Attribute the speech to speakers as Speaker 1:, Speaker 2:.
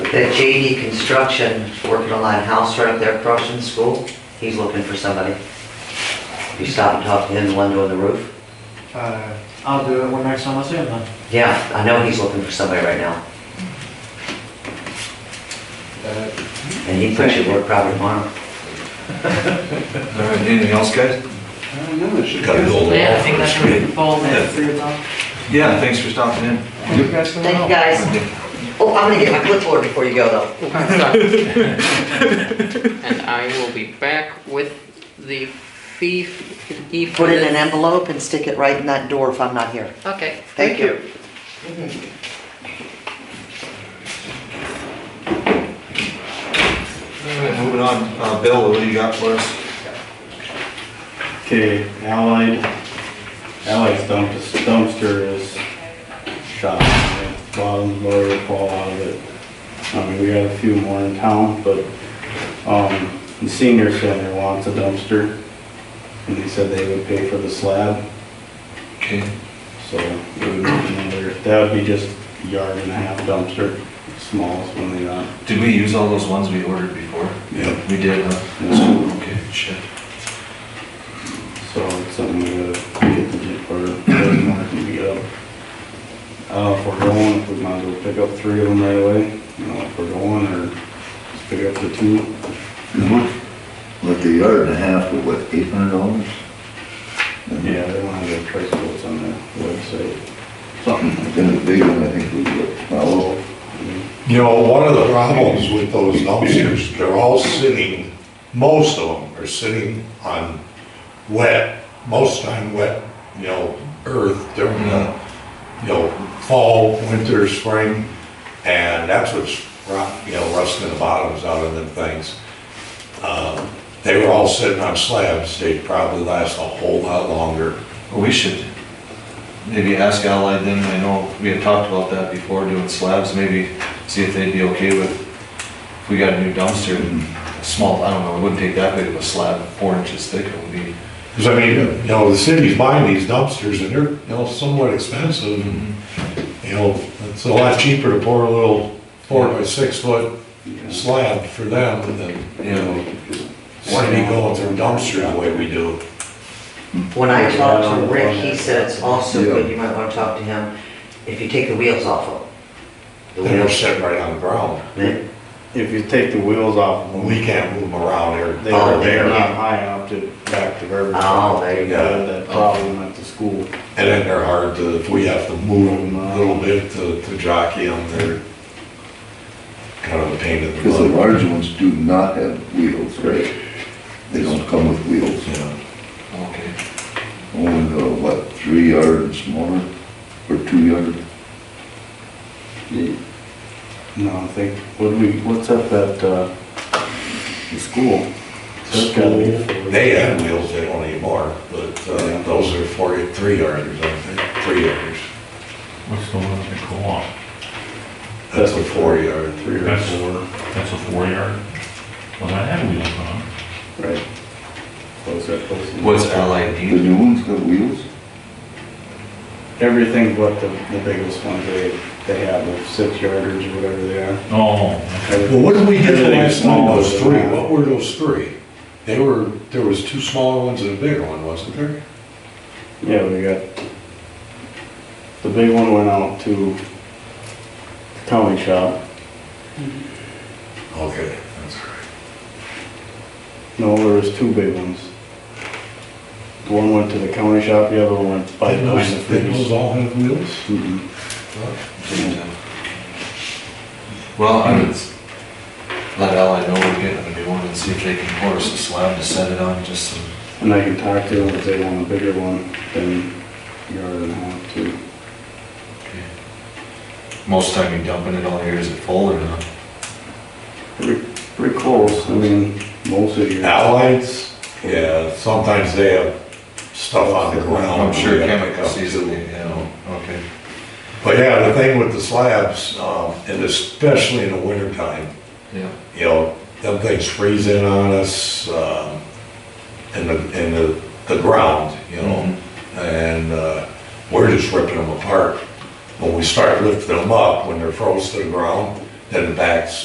Speaker 1: That JD Construction, working on that house right up there across from the school, he's looking for somebody. You stop and talk to him, the one doing the roof?
Speaker 2: Uh, I'll do it when next time I see him then.
Speaker 1: Yeah, I know he's looking for somebody right now,
Speaker 2: Uh,
Speaker 1: and he puts your work probably tomorrow.
Speaker 3: All right, Uh, anything else, guys?
Speaker 2: I don't know, it should be
Speaker 3: Got it
Speaker 2: good.
Speaker 3: all off.
Speaker 4: Yeah, I think that's pretty full, that's three
Speaker 3: Yeah, thanks for stopping in.
Speaker 2: You guys can
Speaker 1: Thank you,
Speaker 2: help.
Speaker 1: guys. Oh, I'm gonna get my clipboard before you go, though.
Speaker 4: And I will be back with the fee, fee for
Speaker 1: Put it in an
Speaker 4: the...
Speaker 1: envelope and stick it right in that door if I'm not here.
Speaker 4: Okay,
Speaker 1: Thank you.
Speaker 3: All right, Moving on, Uh, Bill, what do you got for us?
Speaker 5: Okay, Allied, Allied's dump- dumpster is shot, bottom loader fall out of it. I mean, we got a few more in town, but, um, the senior center wants a dumpster. And they said they would pay for the slab,
Speaker 3: Okay,
Speaker 5: so it would be another, that would be just a yard and a half dumpster, smallest one they got.
Speaker 3: did we use all those ones we ordered before?
Speaker 5: Yep.
Speaker 3: We did, huh? Okay, shit.
Speaker 5: So it's something we gotta get the jet for, doesn't have to be up. Uh, if we're going, if we might as well pick up three of them right away, you know, if we're going, or just pick up the two.
Speaker 1: Mm-hmm.
Speaker 6: With the yard and a half, with what, eight hundred dollars?
Speaker 5: Yeah, they don't have their price quotes on their website.
Speaker 6: Then the big one, I think, we looked, well,
Speaker 7: You know, one of the problems with those dumpsters, they're all sitting, most of them are sitting on wet, most time wet, you know, earth during the, you know, fall, winter, spring, and that's what's, rot- you know, rusting the bottoms out of them things. Uh, They were all sitting on slabs, they'd probably last a whole lot longer.
Speaker 3: Well, we should maybe ask Allied then, I know we had talked about that before, doing slabs, maybe see if they'd be okay with, if we got a new dumpster, and small, I don't know, it wouldn't take that big of a slab, four inches thick, it would be.
Speaker 7: Because I mean, you know, the city's buying these dumpsters and they're, you know, somewhat expensive
Speaker 3: Mm-hmm.
Speaker 7: and, you know, it's a lot cheaper to pour a little four by six foot slab for them than, you know, city going through dumpsters the way we do.
Speaker 1: When I talked to Rick, he said it's also good, you might wanna talk to him, if you take the wheels off of them. The
Speaker 7: They're
Speaker 1: wheels,
Speaker 7: set right on the ground.
Speaker 1: they-
Speaker 5: If you take the wheels off, of them,
Speaker 7: We can't move them around here.
Speaker 5: they are,
Speaker 1: Oh,
Speaker 5: they're
Speaker 1: there.
Speaker 5: not high enough to back to River.
Speaker 1: Oh, there you
Speaker 5: They
Speaker 7: go.
Speaker 5: had That problem at the school.
Speaker 7: And then they're hard to, if we have to move them a little bit to, to jockey them, they're kind of a pain in the
Speaker 6: because the
Speaker 7: butt.
Speaker 6: large ones do not have wheels, right? They don't come with wheels.
Speaker 7: Yeah.
Speaker 3: Okay,
Speaker 6: Only the, what, three yard and smaller, or two yard?
Speaker 5: No, I think, what do we, what's up at, uh, the school? That's gotta be four.
Speaker 7: They had wheels, they don't anymore, but uh, those are four, three yarders, I think, three yarders.
Speaker 8: What's the one that go on?
Speaker 7: That's a four yard, three or
Speaker 8: That's
Speaker 7: four.
Speaker 8: That's a four yard? Well, that had wheels on.
Speaker 5: Right. Close that, close it.
Speaker 3: what's Allied
Speaker 6: The
Speaker 3: need?
Speaker 6: new ones got wheels?
Speaker 5: Everything but the, the biggest ones they, they have, the six yarders or whatever they are.
Speaker 8: Oh,
Speaker 7: Well, what did we get the
Speaker 5: Everything
Speaker 7: last time,
Speaker 5: smaller
Speaker 7: those
Speaker 5: than
Speaker 7: three,
Speaker 5: that.
Speaker 7: what were those three? They were, there was two smaller ones and a bigger one, wasn't there?
Speaker 5: Yeah, we got, the big one went out to county shop.
Speaker 7: Okay, that's right.
Speaker 5: No, there was two big ones. The One went to the county shop, the other one went by
Speaker 7: Didn't
Speaker 5: behind the
Speaker 7: those, didn't those
Speaker 5: freeze. Mm-hmm.
Speaker 7: all have wheels?
Speaker 5: Mm-mm.
Speaker 3: Well, I would let Allied know we're getting a new one and see if they can pour us a slab to set it on, just some
Speaker 5: And I can talk to them if they want a bigger one than yard and a half too.
Speaker 3: Okay. Most time you dumping it all here, is it full or not?
Speaker 5: Pretty, pretty close, I mean, most of your.
Speaker 7: Allies? Yeah, sometimes they have stuff on the ground.
Speaker 3: I'm sure
Speaker 7: we have to
Speaker 3: chemicals
Speaker 7: come to.
Speaker 3: easily, yeah, okay.
Speaker 7: But yeah, the thing with the slabs, um, and especially in the wintertime,
Speaker 3: Yeah.
Speaker 7: you know, them things freeze in on us, um, in the, in the, the ground, you know? And, uh, we're just ripping them apart. When we start lifting them up, when they're froze to the ground, then the backs